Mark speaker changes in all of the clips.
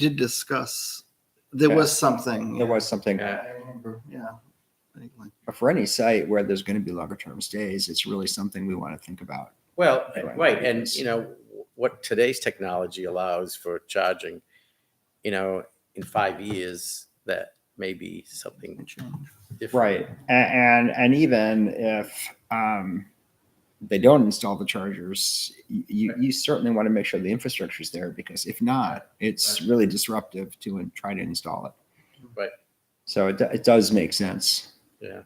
Speaker 1: did discuss, there was something.
Speaker 2: There was something
Speaker 1: Yeah, I remember, yeah. I think like-
Speaker 2: but for any site where there's going to be longer term stays, it's really something we want to think about.
Speaker 3: Well,
Speaker 2: Right.
Speaker 3: right, and you know, what today's technology allows for charging, you know, in five years, that may be something different.
Speaker 2: Right. A- And and even if um, they don't install the chargers, y- you you certainly want to make sure the infrastructure is there because if not, it's really disruptive to in- try to install it.
Speaker 3: Right.
Speaker 2: So it, do- it does make sense.
Speaker 3: Yeah.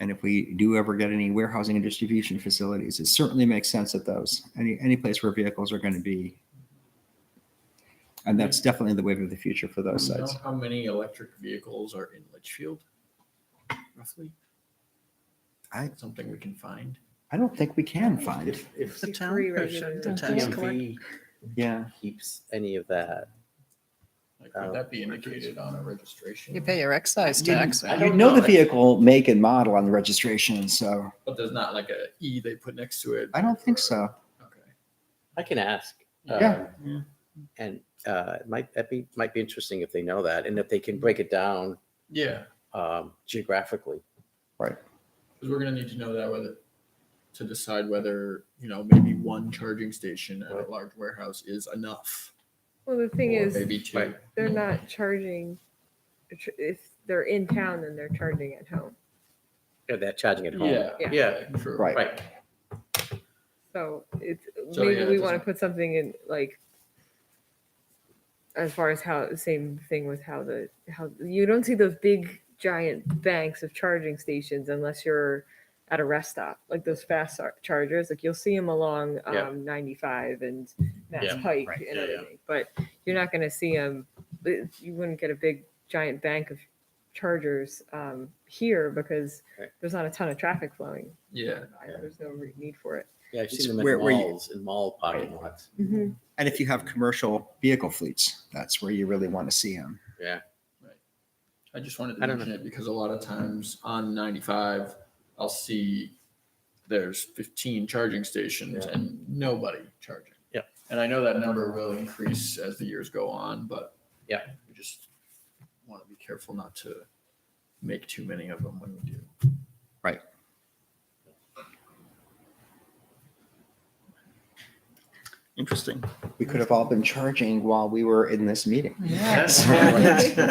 Speaker 2: And if we do ever get any warehousing and distribution facilities, it certainly makes sense at those any any place where vehicles are going to be. And that's definitely the wave of the future for those
Speaker 4: Do you
Speaker 2: sites.
Speaker 4: know How many electric vehicles are in Litchfield? Roughly?
Speaker 2: I-
Speaker 4: Something we can find.
Speaker 2: I don't think we can find.
Speaker 3: If
Speaker 1: The
Speaker 3: the
Speaker 1: town
Speaker 5: regulated
Speaker 1: the
Speaker 5: tax
Speaker 1: town-
Speaker 5: collect-
Speaker 3: DMV
Speaker 2: Yeah.
Speaker 3: keeps any of that,
Speaker 4: Like,
Speaker 2: Uh,
Speaker 4: would that be indicated on a registration?
Speaker 5: You pay your excise tax.
Speaker 4: I
Speaker 2: You
Speaker 4: don't
Speaker 2: know the
Speaker 4: know.
Speaker 2: vehicle make and model on the registration, so
Speaker 4: But there's not like a E they put next to it?
Speaker 2: I don't think
Speaker 4: or-
Speaker 2: so.
Speaker 4: Okay.
Speaker 3: I can ask.
Speaker 2: Yeah.
Speaker 3: um, And uh, it might, that be, might be interesting if they know that, and if they can break it down
Speaker 4: Yeah,
Speaker 3: um, geographically.
Speaker 4: because we're gonna need to know that whether, to decide whether, you know, maybe one charging station at a
Speaker 3: Right.
Speaker 4: large warehouse is enough.
Speaker 6: Well, the thing
Speaker 4: or
Speaker 6: is,
Speaker 4: Maybe two.
Speaker 3: Right.
Speaker 6: they're not charging, if they're in town, then they're charging at home.
Speaker 3: Yeah, They're uh, charging at home.
Speaker 4: Yeah,
Speaker 6: Yeah.
Speaker 4: yeah, true.
Speaker 2: Right.
Speaker 3: Right,
Speaker 6: So it's,
Speaker 4: So, yeah,
Speaker 6: maybe
Speaker 4: it
Speaker 6: we want to
Speaker 4: doesn't-
Speaker 6: put something in like, as far as how, same thing with how the, how, you don't see those big giant banks of charging stations unless you're at a rest stop, like those fast char- chargers, like you'll see them along
Speaker 3: Yeah.
Speaker 6: um, 95 and Mass
Speaker 3: Yeah,
Speaker 6: Pike
Speaker 2: right,
Speaker 6: and
Speaker 3: yeah, yeah.
Speaker 6: everything. But you're not going to see them, you wouldn't get a big giant bank of chargers um, here because
Speaker 3: Right.
Speaker 6: there's not a ton of traffic flowing.
Speaker 4: Yeah,
Speaker 3: Yeah.
Speaker 6: There's no re- need for it.
Speaker 3: yeah, I've
Speaker 2: It's
Speaker 3: seen them
Speaker 2: where-
Speaker 3: in
Speaker 2: where you-
Speaker 3: malls, in mall parking lots.
Speaker 2: And if you have commercial vehicle fleets, that's where you really want to see them.
Speaker 4: I just wanted
Speaker 3: I
Speaker 4: to
Speaker 3: don't
Speaker 4: mention it because a lot of times on ninety-five, I'll see there's fifteen charging stations
Speaker 3: Yeah.
Speaker 4: and nobody charging.
Speaker 3: Yeah.
Speaker 4: And I know that number will increase as the years go on, but.
Speaker 3: Yeah.
Speaker 4: We just want to be careful not to make too many of them when we do.
Speaker 1: Interesting.
Speaker 2: We could have all been charging while we were in this meeting.
Speaker 4: Yes.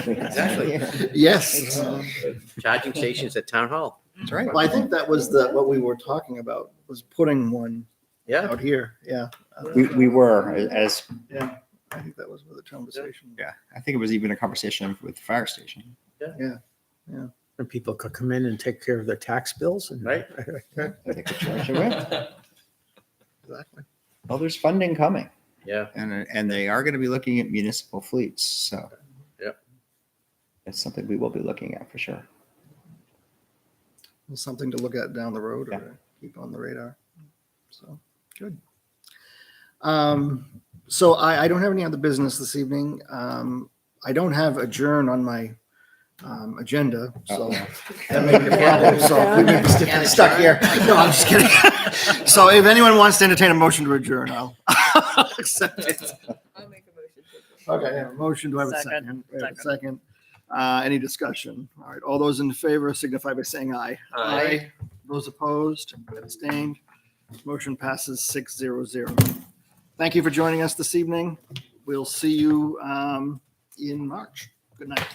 Speaker 3: Exactly.
Speaker 2: Yeah,
Speaker 1: Yes.
Speaker 3: Charging stations at town hall.
Speaker 2: That's right.
Speaker 1: Well, I think that was the, what we were talking about, was putting one
Speaker 3: Yeah.
Speaker 1: out here, yeah.
Speaker 2: We, we were as,
Speaker 1: Yeah, I think that was where the conversation.
Speaker 2: yeah, I think it was even a conversation with the fire station.
Speaker 7: And people could come in and take care of their tax bills and.
Speaker 3: Right.
Speaker 2: that they could charge away.
Speaker 1: Exactly.
Speaker 2: Well, there's funding coming
Speaker 3: Yeah,
Speaker 2: and, and they are going to be looking at municipal fleets, so.
Speaker 3: Yep.
Speaker 2: It's something we will be looking at for sure.
Speaker 1: Well, Something to look at down the road
Speaker 2: Yeah.
Speaker 1: or keep on the radar. So, good. Um, so I, I don't have any other business this evening. Um, I don't have adjourn on my, um, agenda, so.
Speaker 2: Uh-oh.
Speaker 1: That may be a problem, so we may be sti- stuck here. No, I'm just kidding. So if anyone wants to entertain a motion to adjourn, I'll accept it.
Speaker 6: I'll make a motion to approve.
Speaker 1: Okay, I have a motion. Do I have a second? We have a Second. Uh, any discussion? All right, all those in favor signify by saying aye. Aye. Those opposed, abstained, motion passes six zero zero. Thank you for joining us this evening. We'll see you, um, in March. Good night.